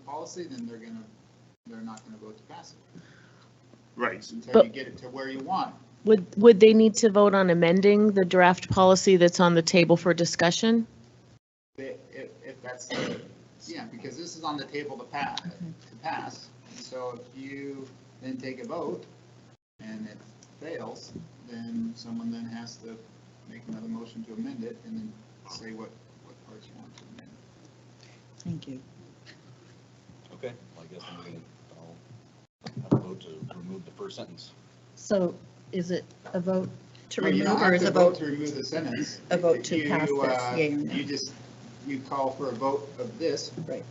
policy, then they're gonna, they're not gonna vote to pass it Right. until But- you get it to where you want. it. Would, would they need to vote on amending the draft policy that's on the table for discussion? They- If, if that's, the- yeah, because this is on the table to pass, to pass. And So if you then take a vote and it fails, then someone then has to make another motion to amend it and then say what, what parts you want to amend. Thank you. Okay, well, I guess I'm gonna, I'll, I'll vote to remove the first sentence. So is it a vote to Well, you don't remove or have is to a vote? To remove the sentence. a vote to You, pass this, uh, yea or nay? You just, you call for a vote of this. Right.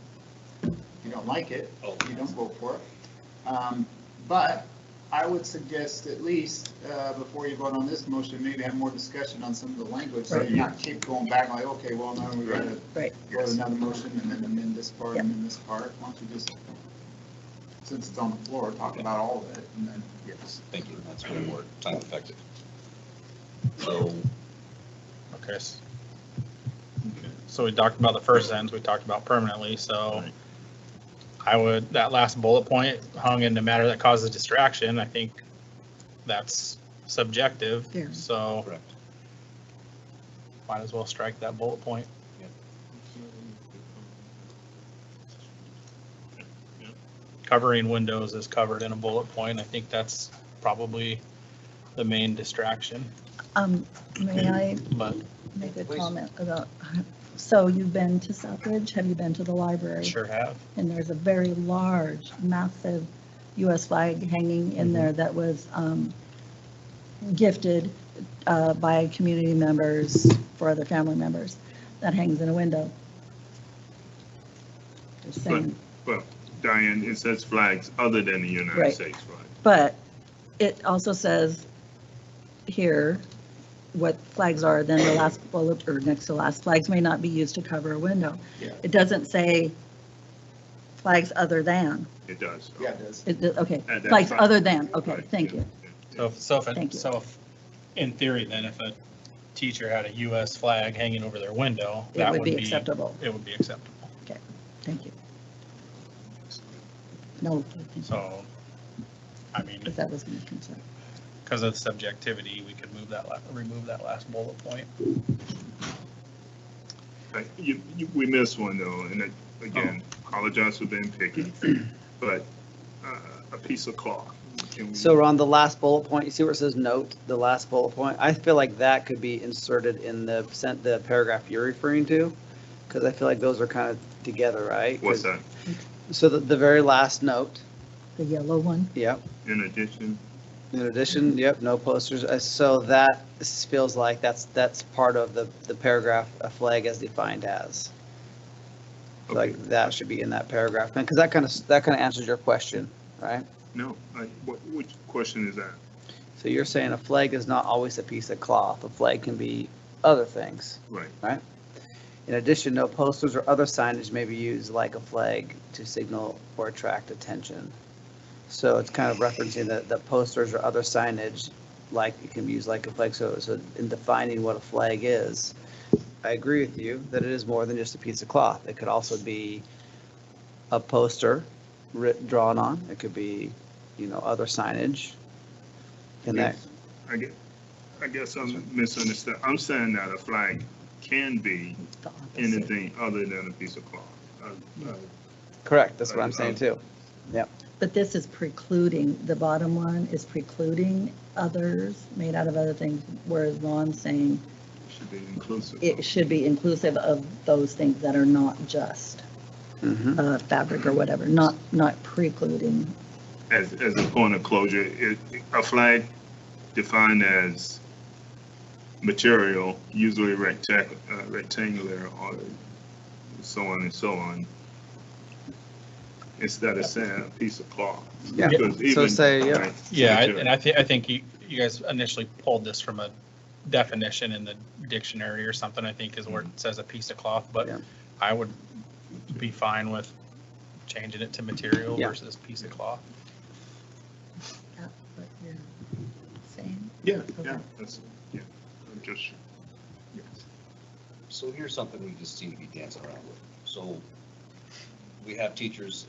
If you don't like it, Oh. you don't vote for it. Um, But I would suggest at least, uh, before you vote on this motion, maybe have more discussion on some of the language. So Right. you're not keep going back like, okay, well, now we gotta Right. go to another motion and then amend this part Yep. and then this part. Why don't you just, since it's on the floor, talk about all of it and then. Yes. Thank you, that's way more time effective. So, Okay. s- So we talked about the first sentence, we talked about permanently, so Right. I would, that last bullet point hung in the matter that causes distraction, I think that's subjective, Yeah. so correct. might as well strike that bullet point. Covering windows is covered in a bullet point, I think that's probably the main distraction, Um, may I but make a Please. comment about, so you've been to Southbridge? Have you been to the library? sure have. And there's a very large, massive US flag hanging in there that was um, gifted uh, by community members for other family members that hangs in a window. Just saying. Well, Diane, it says flags other than the United Right. States flag. But it also says here what flags are, then the last bullet, or next to last, flags may not be used to cover a window. Yeah. It doesn't say flags other than, It does. Yeah, it does. it, okay, At that flags time. other than, okay, Right, thank yeah, you. yeah, So, if- so if, Thank it- you. so if, in theory then, if a teacher had a US flag hanging over their window, It that would be acceptable, It would be acceptable. thank you. No, thank you, So, I mean, because that was my concern. because of subjectivity, we could move that, la- remove that last bullet point. Like, You, you, we missed one though, and it- again, apologize for being picky, but uh, a piece of cloth. Can we- So Ron, the last bullet point, you see where it says note, the last bullet point? I feel like that could be inserted in the sent, the paragraph you're referring to. Cause I feel like those are kind of together, right? What's that? So the, the very last note, The yellow one, yep. In addition, In addition, yep, no posters. Uh, So that s- feels like that's, that's part of the, the paragraph, a flag as defined as. okay, Like that should be in that paragraph, because that kind of, that kind of answers your question, right? no, like, what, which question is that? So you're saying a flag is not always a piece of cloth. A flag can be other things. Right, In addition, no posters or other signage may be used like a flag to signal or attract attention. So it's kind of referencing that the posters or other signage, like it can be used like a flag. So, so in defining what a flag is, I agree with you that it is more than just a piece of cloth. It could also be a poster writ, drawn on. It could be, you know, other signage. And that, I guess, I guess I'm misunderstanding. I'm saying that a flag can be the opposite. anything other than a piece of cloth. Uh, uh, correct, that's what I'm saying too. But this is precluding, the bottom one is precluding others, made out of other things, whereas Ron's saying Should be inclusive. it should be inclusive of those things that are not just Mhm. uh, fabric or whatever, not, not precluding. As, as a point of closure, it, a flag defined as material, usually rectac, uh, rectangular or so on and so on, instead of saying a piece of cloth. Yeah. Because So even, say, yeah. like, Yeah, I- material- and I think, I think you, you guys initially pulled this from a definition in the dictionary or something, I think is where Mm-hmm. it says a piece of cloth, but Yeah. I would be fine with changing it to material Yeah. versus piece of cloth. That's what you're saying? Yeah, yeah, that's, yeah, I'm just, yes. so here's something we just seem to be dancing around with. So we have teachers